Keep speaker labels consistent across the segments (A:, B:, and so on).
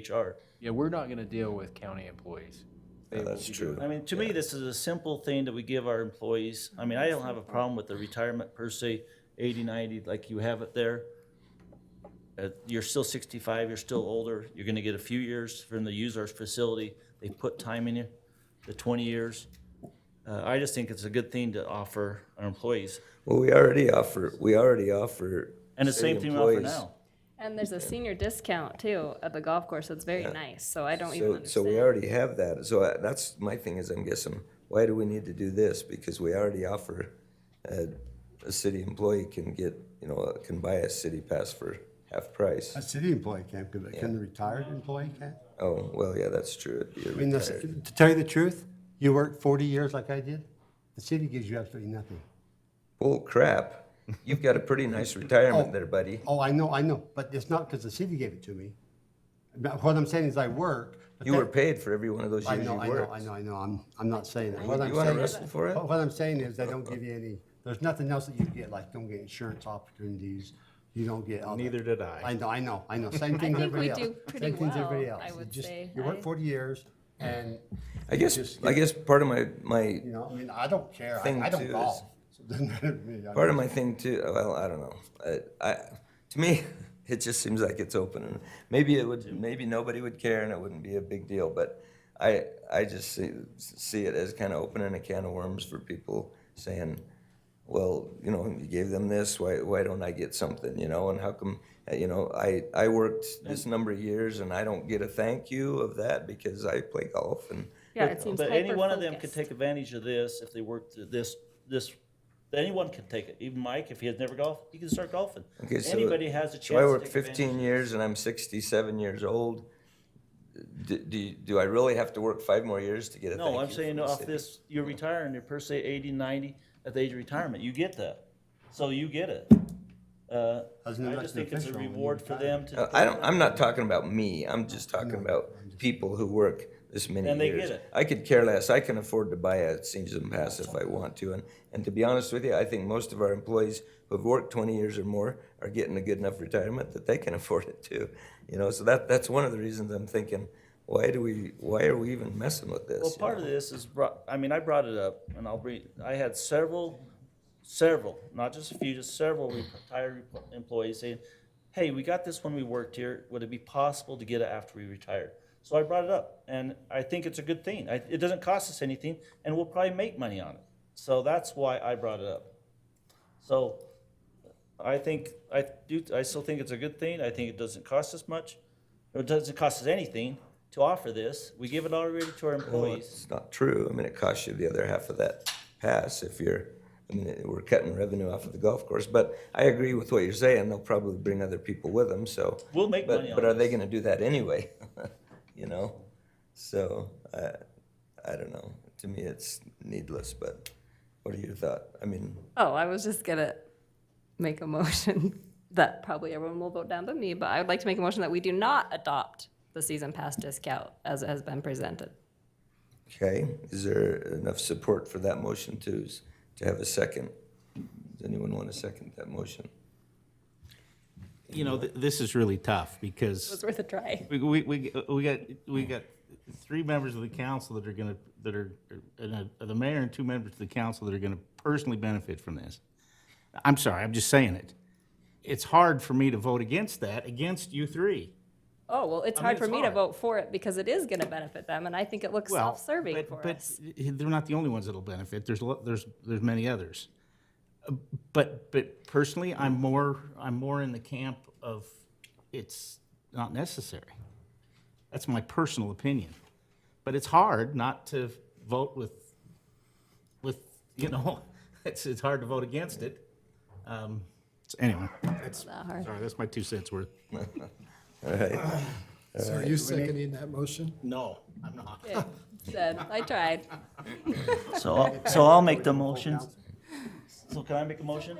A: HR.
B: Yeah, we're not gonna deal with county employees. They will
C: That's
B: be
C: true.
A: I mean, to me, this is a simple thing that we give our employees. I mean, I don't have a problem with the retirement per se, 80, 90, like you have it there. Uh, you're still sixty-five, you're still older, you're gonna get a few years from the user's facility. They put time in you, the twenty years. Uh, I just think it's a good thing to offer our employees.
C: Well, we already offer, we already offer.
A: And the
C: city
A: same thing we offer
C: employees.
A: now.
D: And there's a senior discount too at the golf course. It's very nice. So I don't even
C: So, so
D: understand.
C: we already have that. So I- that's my thing is I'm guessing, why do we need to do this? Because we already offer, uh, a city employee can get, you know, uh, can buy a city pass for half price.
E: A city employee can't, can can the retired employee can?
C: Oh, well, yeah, that's true. It'd be a
E: I mean, this-
C: retired.
E: to tell you the truth, you work forty years like I did, the city gives you absolutely nothing.
C: Bull crap. You've got a pretty nice retirement there, buddy.
E: Oh, I know, I know, but it's not because the city gave it to me. But What I'm saying is I work. but
C: You
E: that-
C: were paid for every one of those
E: I
C: years you
E: know, I know,
C: worked.
E: I know, I know, I'm, I'm not saying that. What
C: You
E: I'm
C: wanna
E: saying-
C: wrestle for it?
E: What what I'm saying is they don't give you any, there's nothing else that you get, like don't get insurance opportunities, you don't get. all that.
F: Neither did I.
E: I know, I know, I know, same thing
D: think
E: as
D: we
E: everybody else.
D: do pretty
E: Same thing as
D: well,
E: everybody else.
D: I
E: It
D: would
E: just-
D: say.
E: You
D: I-
E: work forty years and
C: I guess, I guess part of my, my
E: You know, I mean, I don't care.
C: Thing
E: I, I
C: too
E: don't
C: is-
E: golf. So it doesn't matter to me. I
C: Part of my thing too. Well, I don't know. I, I, to me, it just seems like it's open, and maybe it would. Maybe nobody would care, and it wouldn't be a big deal. But I, I just see, see it as kind of opening a can of worms for people saying, "Well, you know, you gave them this. Why, why don't I get something? You know, and how come? uh, You know, I, I worked this number of years, and I don't get a thank you of that because I play golf and."
D: Yeah, it seems
A: But any one of them could
D: hyper-focused.
A: take advantage of this if they worked th- this, this, anyone can take it. Even Mike, if he has never golfed, he can start golfing.
C: Okay, so-
A: Anybody has a chance.
C: So I
A: to
C: worked
A: take advantage.
C: 15 years and I'm 67 years old. Do, do, do I really have to work five more years to get a thank
A: No, I'm
C: you
A: saying
C: from the
A: off
C: city?
A: this, you're retiring, you're per se 80, 90 at the age of retirement, you get that. So you get it. Uh,
E: Doesn't
A: I
E: it make
A: just
E: you
A: think it's a
E: official when you
A: reward for them
C: Uh,
A: to,
C: I don't, I'm not talking about me. I'm just talking about people who work this many
A: And they get
C: years.
A: it.
C: I could care less. I can afford to buy a season pass if I want to. And, and to be honest with you, I think most of our employees who've worked 20 years or more are getting a good enough retirement that they can afford it too. You know, so that, that's one of the reasons I'm thinking, why do we, why are we even messing with this?
A: well,
C: you
A: part
C: know?
A: of this is brought, I mean, I brought it up and I'll bring, I had several, several, not just a few, just several retired employees saying, hey, we got this when we worked here, would it be possible to get it after we retired? So I brought it up and I think it's a good thing. I, it doesn't cost us anything and we'll probably make money on it. So that's why I brought it up. So I think, I do, I still think it's a good thing. I think it doesn't cost us much. It doesn't cost us anything to offer this. We give it already to our
C: Well,
A: employees.
C: It's not true. I mean, it costs you the other half of that pass if you're, I mean, we're cutting revenue off of the golf course. But I agree with what you're saying. They'll probably bring other people with them, so.
A: We'll make
C: but-
A: money on
C: But are they
A: this.
C: gonna do that anyway? You know? So, I, I don't know. To me, it's needless, but what are your thought? I mean,
D: Oh, I was just gonna make a motion that probably everyone will vote down but me, but I would like to make a motion that we do not adopt the season pass discount as it has been presented.
C: okay, is there enough support for that motion to, s- to have a second? Does anyone want to second that motion?
F: You know, th- this is really tough
D: It was
F: because
D: worth a try.
F: we, we, we, we got, we got three members of the council that are gonna, that are, and uh, the mayor and two members of the council that are gonna personally benefit from this. I'm sorry, I'm just saying it. It's hard for me to vote against that, against you three.
D: Oh, well, it's hard
F: it's
D: for me to
F: hard.
D: vote for it because it is gonna benefit them and I think it looks
F: Well,
D: self-serving
F: but-
D: for
F: but
D: us.
F: They're not the only ones that'll benefit. There's, lo- there's, there's many others. Uh, But, but personally, I'm more, I'm more in the camp of it's not necessary. That's my personal opinion. But it's hard not to vote with, with, you know, it's, it's hard to vote against it. Um, so Anyway, that's,
D: Not hard.
F: sorry, that's my two cents worth.
C: All right.
G: So are you seconding that motion?
F: No, I'm not.
D: Said, I tried.
A: So, I'll- so I'll make the motion. So can I make a motion?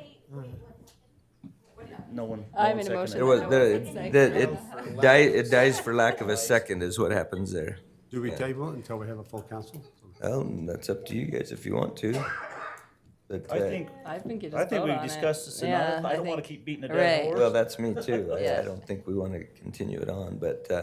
A: No one. no
D: I
A: one
D: made a
A: seconded.
D: motion.
C: There was,
D: No,
C: there,
D: it's
C: it-
D: like-
C: that- it dies, it dies for lack of a second is what happens there.
E: Do we table it until we have a full council?
C: Well, that's up to you guys if you want to. But,
A: I
C: uh,
A: think,
D: I think you just
A: I think
D: vote
A: we've
D: on it.
A: discussed this
D: Yeah,
A: enough. I don't want
D: think-
A: to keep beating a
D: Right.
A: dead
C: well,
A: horse.
C: that's me too. I, I
D: Yeah.
C: don't think we want to continue it on, but, uh,